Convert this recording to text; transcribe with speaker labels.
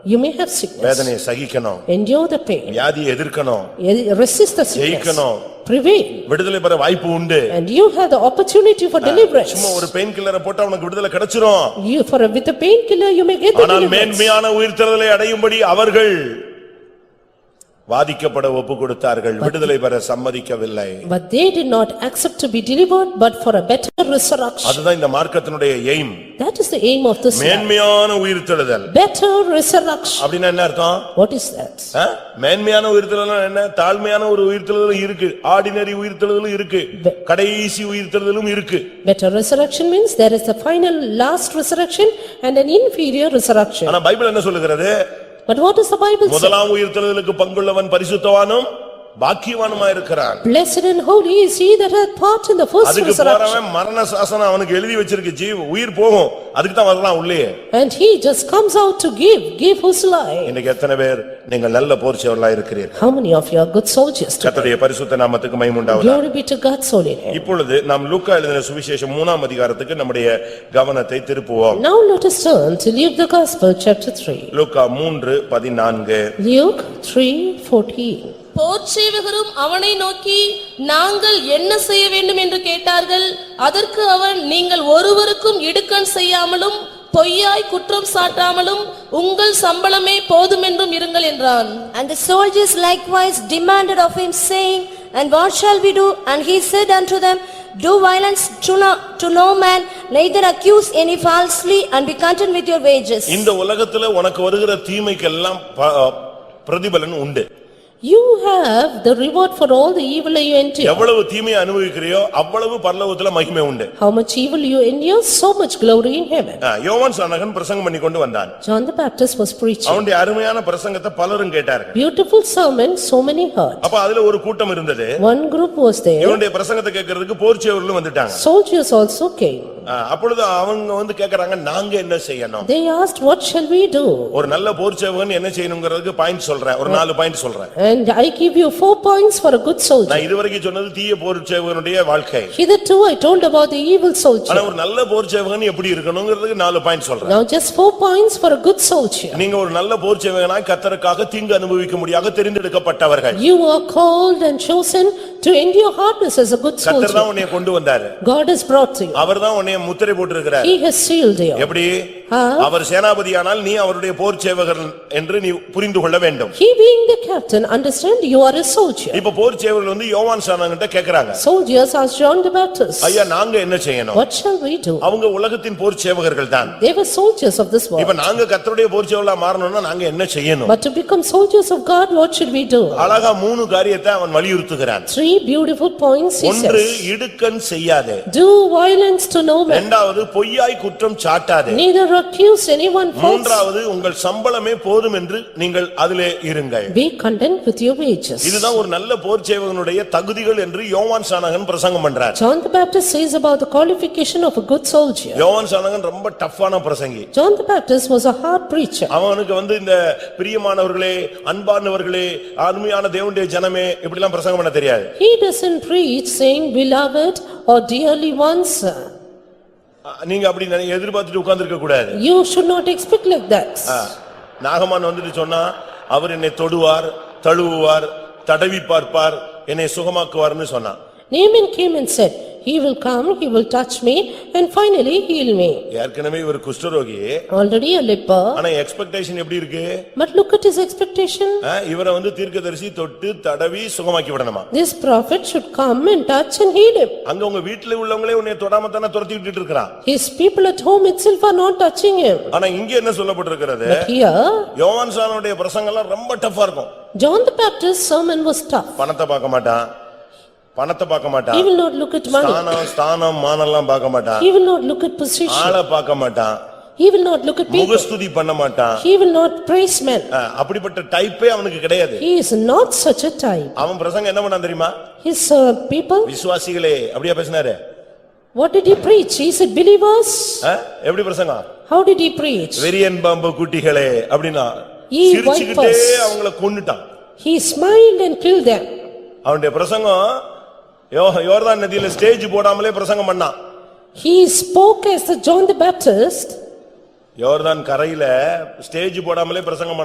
Speaker 1: You may have sickness,
Speaker 2: வேதனையை சகிக்கணும்
Speaker 1: endure the pain,
Speaker 2: வியாதியை எதிர்க்கணும்
Speaker 1: eh, resist the sickness,
Speaker 2: ஜெயிக்கணும்.
Speaker 1: prevail,
Speaker 2: விடுதலை பெற வாய்ப்பு உண்டு
Speaker 1: and you have the opportunity for
Speaker 2: சும்மா
Speaker 1: deliverance.
Speaker 2: ஒரு பெயின் கில்லரை போட்டா உனக்கு விடுதலை கிடைச்சிரும்
Speaker 1: You, for, a- with a painkiller, you may get the
Speaker 2: ஆனால்
Speaker 1: deliverance.
Speaker 2: மேன்மையான உயிர்த்தெழுதலை அடையும்படி அவர்கள் வாதிக்கப்பட ஒப்பு கொடுத்தார்கள் விடுதலை பெற சம்மதிக்கவில்லை
Speaker 1: But they did not accept to be delivered, but for a better resurrection.
Speaker 2: அதுதான் இந்த மார்க்கத்தினுடைய aim
Speaker 1: That is the aim of this life.
Speaker 2: மேன்மையான உயிர்த்தெழுதல்
Speaker 1: Better resurrection.
Speaker 2: அப்படின்னா என்ன அர்த்தம்
Speaker 1: What is that?
Speaker 2: ஆ? மேன்மையான உயிர்த்தெழுதல் என்ன தாழ்மையான ஒரு உயிர்த்தெழுதலும் இருக்கு ஆர்டினரி உயிர்த்தெழுதலும் இருக்கு கடைசி உயிர்த்தெழுதலும் இருக்கு
Speaker 1: Better resurrection means there is a final, last resurrection and an inferior resurrection.
Speaker 2: ஆனா பைபிள் என்ன சொல்லுகிறது
Speaker 1: But what does the Bible say?
Speaker 2: முதலாம் உயிர்த்தெழுதலுக்கு பங்குள்ளவன் பரிசுத்தவானும் பாக்கியவானுமா இருக்கிறான்
Speaker 1: Blessed and holy is he that hath part in the first
Speaker 2: அதுக்கு
Speaker 1: resurrection.
Speaker 2: போறவன் மரண சாசனம் அவனுக்கு எழுதி வச்சிருக்கு ஜீவ் உயிர் போகும் அதுக்கு தான் வரலாம் உள்ளே
Speaker 1: And he just comes out to give, give whose life.
Speaker 2: இன்னைக்கு எத்தனை பேர் நீங்கள் நல்ல போர்ச்சவர்களா இருக்கிறீர்கள்
Speaker 1: How many of you are good soldiers? today?
Speaker 2: கர்த்தருடைய பரிசுத்த நாமத்துக்கு மைமுண்டாவதா
Speaker 1: Glory be to God's holy name.
Speaker 2: இப்பொழுது நாம் லூக்கா எழுதின சுவிசேஷம் மூணாம் அதிகாரத்துக்கு நம்முடைய கவனத்தை திருப்புவோம்
Speaker 1: Now let us turn to Luke the Gospel, chapter 3.
Speaker 2: லூக்கா மூன்று பதினான்கு
Speaker 1: Luke 3:14.
Speaker 3: போர்ச்சேவகரும் அவனை நோக்கி நாங்கள் என்ன செய்ய வேண்டும் என்று கேட்டார்கள் அதற்கு அவன் நீங்கள் ஒருவருக்கும் இடுக்கண் செய்யாமலும் பொய்யாய் குற்றம் சாட்டாமலும் உங்கள் சம்பளமே போதுமென்றும் இருங்கள் என்றான்
Speaker 4: And the soldiers likewise demanded of him, saying, "And what shall we do?" And he said unto them, "Do violence to no to no man, neither accuse any falsely, and be content with your wages."
Speaker 2: இந்த உலகத்துல உனக்கு வருகிற தீமைக்கெல்லாம் ப- பிரதிபலன் உண்டு
Speaker 1: You have the reward for all the evil you endure.
Speaker 2: எவ்வளவு தீமையை அனுபவிக்கிறியோ அவ்வளவு பரலோகத்துல மகிமை உண்டு
Speaker 1: How much evil you endure, so much glory in heaven.
Speaker 2: ஆ, யோவான் சானகன் பிரசங்கம் பண்ணி கொண்டு வந்தான்
Speaker 1: John the Baptist was preaching.
Speaker 2: அவனுடைய அருமையான பிரசங்கத்தை பலரும் கேட்டார்கள்
Speaker 1: Beautiful sermon, so many heard.
Speaker 2: அப்ப அதுல ஒரு கூட்டம் இருந்தது
Speaker 1: One group was there,
Speaker 2: இவனுடைய பிரசங்கத்தை கேட்கறதுக்கு போர்ச்சியவர்களும் வந்துட்டாங்க
Speaker 1: soldiers also came.
Speaker 2: ஆ, அப்பொழுது அவங்க வந்து கேக்குறாங்க நாங்க என்ன செய்யணும்
Speaker 1: They asked, "What shall we do?"
Speaker 2: ஒரு நல்ல போர்ச்சேவகன் என்ன செய்யணுங்கிறதுக்கு பாயிண்ட் சொல்றேன் ஒரு நாலு பாயிண்ட் சொல்றேன்
Speaker 1: And I give you four points for a good soldier.
Speaker 2: நான் இதுவரைக்கும் சொன்னது தீய போர்ச்சேவகனுடைய வாழ்க்கை
Speaker 1: Hitherto I told about the evil soldier.
Speaker 2: ஆனா ஒரு நல்ல போர்ச்சேவகன் எப்படி இருக்கணுங்கிறதுக்கு நாலு பாயிண்ட் சொல்றேன்
Speaker 1: Now just four points for a good soldier.
Speaker 2: நீங்க ஒரு நல்ல போர்ச்சேவகனாய் கத்தருக்காக தீங்கு அனுபவிக்க முடியாத தெரிந்தெடுக்கப்பட்டவர்கள்
Speaker 1: You are called and chosen to endure hardness as a good
Speaker 2: கத்தர்
Speaker 1: soldier.
Speaker 2: தான் உன்னை கொண்டு வந்தாரு
Speaker 1: God has brought to you.
Speaker 2: அவர் தான் உன்னை முத்திரை போட்டிருக்கிறார்
Speaker 1: He has sealed you.
Speaker 2: எப்படி
Speaker 1: Ah.
Speaker 2: அவர் சேனாபதியானால் நீ அவருடைய போர்ச்சேவகன் என்று நீ புரிந்து கொள்ள வேண்டும்
Speaker 1: He being the captain, understand you are a soldier.
Speaker 2: இப்ப போர்ச்சேவர்கள் வந்து யோவான் சானங்கிட்ட கேக்குறாங்க
Speaker 1: Soldiers asked John the Baptist,
Speaker 2: ஐயா நாங்க என்ன செய்யணும்
Speaker 1: "What shall we do?"
Speaker 2: அவங்க உலகத்தின் போர் சேவகர்கள் தான்
Speaker 1: They were soldiers of this
Speaker 2: இப்ப
Speaker 1: world.
Speaker 2: நாங்க கர்த்தருடைய போர் சேவலா மாறணும்னா நாங்க என்ன செய்யணும்
Speaker 1: But to become soldiers of God, what should we do?
Speaker 2: அழகா மூணு காரியத்தை அவன் வலியுறுத்துகிறான்
Speaker 1: Three beautiful points he
Speaker 2: ஒன்று
Speaker 1: says.
Speaker 2: இடுக்கண் செய்யாதே
Speaker 1: Do violence to no man,
Speaker 2: இரண்டாவது பொய்யாய் குற்றம் சாட்டாதே
Speaker 1: neither accuse anyone false.
Speaker 2: மூன்றாவது உங்கள் சம்பளமே போதும் என்று நீங்கள் அதிலே இருங்கள்
Speaker 1: Be content with your wages.
Speaker 2: இதுதான் ஒரு நல்ல போர் சேவகனுடைய தகுதிகள் என்று யோவான் சானகன் பிரசங்கம் பண்றார்
Speaker 1: John the Baptist says about the qualification of a good soldier.
Speaker 2: யோவான் சானகன் ரொம்ப டஃப்பான பிரசங்கி
Speaker 1: John the Baptist was a hard preacher.
Speaker 2: அவனுக்கு வந்து இந்த பிரியமானவர்களே அன்பானவர்களே அருமையான தேவனுடைய ஜனமே இப்படிலாம் பிரசங்கம் பண்ண தெரியாது
Speaker 1: He doesn't preach saying beloved or dearly ones.
Speaker 2: அஹ் நீங்க அப்படி நினை- எதிர்பார்த்துட்டு உட்கார்ந்திருக்க கூடாது
Speaker 1: You should not expect like that.
Speaker 2: அஹ் நாகமான் வந்துட்டு சொன்னா அவர் என்னை தொடுவார் தழுவுவார் தடவி பார்ப்பார் என்னை சுகமாக்குவார்னு சொன்னான்
Speaker 1: Naaman came and said, "He will come, he will touch me and finally heal me."
Speaker 2: ஏற்கனவே இவர் குஷ்டரோகி
Speaker 1: Already a leper,
Speaker 2: ஆனா எக்ஸ்பெக்டேஷன் எப்படி இருக்கு
Speaker 1: but look at his expectation.
Speaker 2: அஹ் இவரை வந்து தீர்க்கதரிசி தொட்டு தடவி சுகமாக்கி விடணுமா
Speaker 1: This prophet should come and touch and heal him.
Speaker 2: அங்க உங்க வீட்டுல உள்ளவங்களே உன்னை தொடாம தானே துரத்தி விட்டுட்டு இருக்கிறான்
Speaker 1: His people at home itself are not touching him.
Speaker 2: ஆனா இங்க என்ன சொல்லப்பட்டிருக்கிறது
Speaker 1: But here,
Speaker 2: யோவான் சானுடைய பிரசங்கம்லாம் ரொம்ப டஃப்பா இருக்கும்
Speaker 1: John the Baptist's sermon was tough.
Speaker 2: பணத்தை பார்க்க மாட்டான் பணத்தை பார்க்க
Speaker 1: He
Speaker 2: மாட்டான்
Speaker 1: will not look at money.
Speaker 2: ஸ்தானம் ஸ்தானம் மானம்லாம் பார்க்க மாட்டான்
Speaker 1: He will not look at position.
Speaker 2: ஆளை பார்க்க மாட்டான்
Speaker 1: He will not look at people.
Speaker 2: முகஸ்துதி பண்ண மாட்டான்
Speaker 1: He will not praise men.
Speaker 2: அஹ் அப்படிப்பட்ட டைப்பே அவனுக்கு கிடையாது
Speaker 1: He is not such a type.
Speaker 2: அவன் பிரசங்கம் என்ன பண்ணான் தெரியுமா
Speaker 1: His uh, people,
Speaker 2: விசுவாசிகளே அப்படியா பேசினாரு
Speaker 1: what did he preach? He said believers.
Speaker 2: அஹ்? எப்படி பிரசங்கம்
Speaker 1: How did he preach?
Speaker 2: வெறியன் பாம்பு குட்டிகளே அப்படின்னா
Speaker 1: Ye
Speaker 2: சிரிச்சுக்கிட்டே
Speaker 1: vipers.
Speaker 2: அவங்கள கொன்னுட்டான்
Speaker 1: He smiled and killed them.
Speaker 2: அவனுடைய பிரசங்கம் யோ- யோர்தான் நதியில ஸ்டேஜ் போடாமலே பிரசங்கம் பண்ணான்
Speaker 1: He spoke as the John the Baptist.
Speaker 2: யோர்தான் கரையில ஸ்டேஜ் போடாமலே பிரசங்கம்